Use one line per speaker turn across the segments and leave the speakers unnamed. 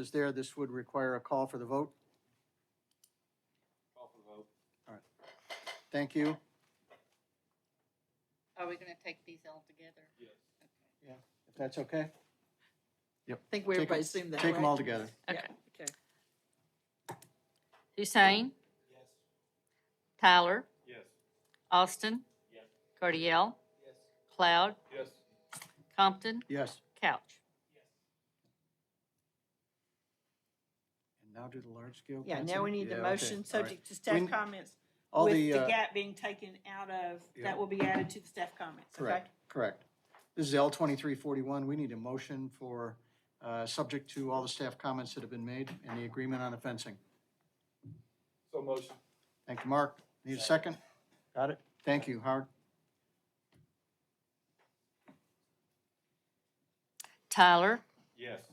is there, this would require a call for the vote.
Call for the vote.
Thank you.
Are we gonna take these all together?
Yes.
Okay.
If that's okay,
I think we
Take 'em-
everybody assumed that,
take them all
right?
together.
Yeah,
Okay.
Okay.
Hussein,
Yes.
Tyler,
Yes.
Austin,
Yes.
Cardiel,
Yes.
Cloud,
Yes.
Compton,
Yes,
Couch.
and now do the large scale.
Yeah, now we need the motion, subject to
We
staff
n-
comments,
All
with
the,
the
uh,
gap being taken out of,
Yeah.
that will be added to the staff comments, okay?
Correct, correct. This is L twenty-three forty-one. We need a motion for, uh, subject to all the staff comments that have been made and the agreement on the fencing.
So motion.
Thank you, Mark. Need a second? Got it. Thank you, Howard.
Tyler,
Yes.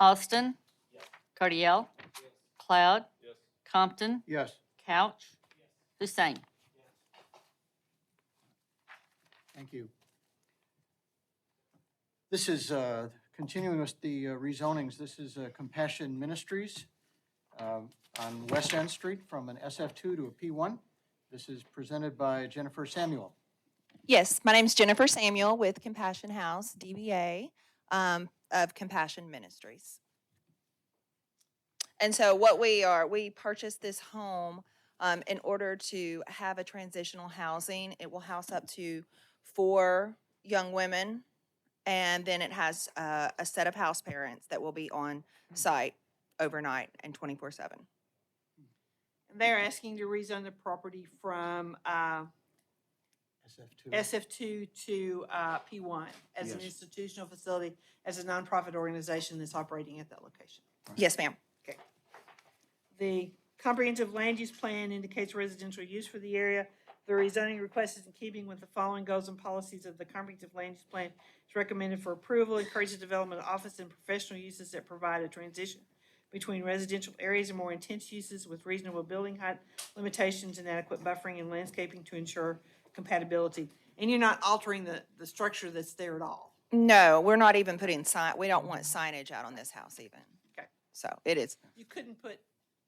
Austin,
Yes.
Cardiel,
Yes.
Cloud,
Yes.
Compton,
Yes,
Couch, Hussein.
thank you. This is, uh, continuing with the uh, rezonings. This is uh, Compassion Ministries, uh, on West End Street from an SF two to a P one. This is presented by Jennifer Samuel.
Yes, my name's Jennifer Samuel with Compassion House, DBA um, of Compassion Ministries. And so what we are, we purchased this home um, in order to have a transitional housing. It will house up to four young women, and then it has uh, a set of house parents that will be on site overnight and 24/7.
They're asking to rezone the property from, uh,
SF two.
SF two to, uh, P one as an
Yes.
institutional facility, as a nonprofit organization that's operating at that location.
Yes, ma'am.
The comprehensive land use plan indicates residential use for the area. The rezoning request is in keeping with the following goals and policies of the comprehensive land use plan. It's recommended for approval, encourages development of office and professional uses that provide a transition between residential areas and more intense uses with reasonable building height limitations and adequate buffering and landscaping to ensure compatibility. And you're not altering the, the structure that's there at all.
No, we're not even putting sign, we don't want signage out on this house even.
Okay.
So it is,
You couldn't put,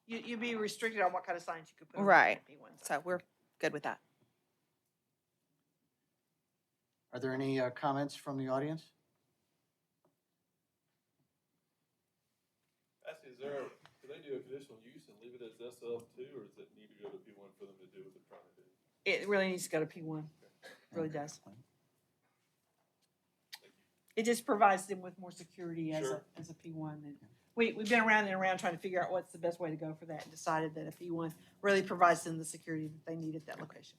you, you'd be restricted on what kind of signs you could put. on
Right.
P one.
so we're good with that.
Are there any uh, comments from the audience?
Actually, is there, can they do a conditional use and leave it as SF two, or does it need to go to P one for them to do what they're trying to do?
It really needs to go to P one. Really does. It just provides them with more security as a,
Sure.
as a P one. And we, we've been around and around trying to figure out what's the best way to go for that and decided that a P one really provides them the security that they need at that location.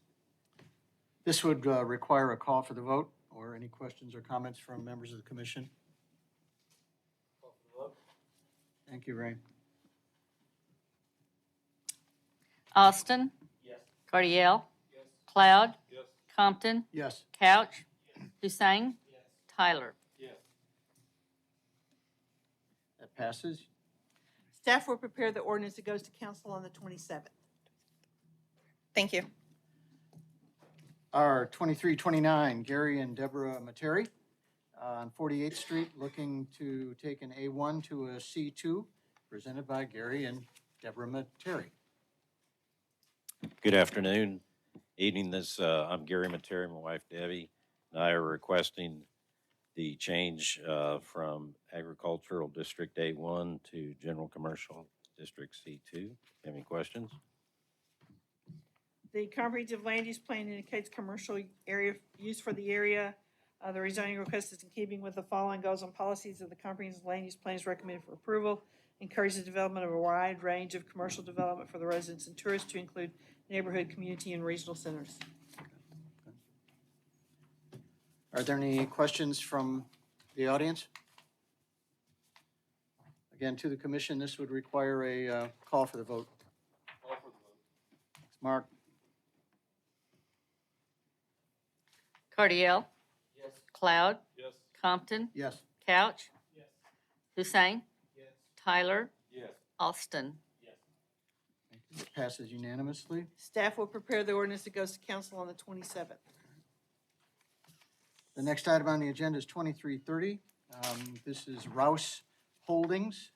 This would uh, require a call for the vote or any questions or comments from members of the commission.
Call for the vote.
Thank you, Ray.
Austin,
Yes.
Cardiel,
Yes.
Cloud,
Yes.
Compton,
Yes,
Couch, Hussein,
Yes.
Tyler.
Yes.
that passes.
Staff will prepare the ordinance that goes to council on the twenty-seventh.
Thank you.
R twenty-three twenty-nine, Gary and Deborah Materi uh, on Forty-Eighth Street, looking to take an A one to a C two, presented by Gary and Deborah Materi.
Good afternoon, evening. This, uh, I'm Gary Materi, my wife Debbie, and I are requesting the change, uh, from agricultural district A one to general commercial district C two. Any questions?
The comprehensive land use plan indicates commercial area, use for the area. Uh, the rezoning request is in keeping with the following goals and policies of the comprehensive land use plan is recommended for approval. Encourages the development of a wide range of commercial development for the residents and tourists to include neighborhood, community, and regional centers.
Are there any questions from the audience? Again, to the commission, this would require a uh, call for the vote.
Call for the vote.
Mark?
Cardiel,
Yes.
Cloud,
Yes.
Compton,
Yes.
Couch,
Yes.
Hussein,
Yes.
Tyler,
Yes.
Austin.
Yes.
It passes unanimously.
Staff will prepare the ordinance that goes to council on the twenty-seventh.
Um, The next item on the agenda is twenty-three thirty. This is Rouse Holdings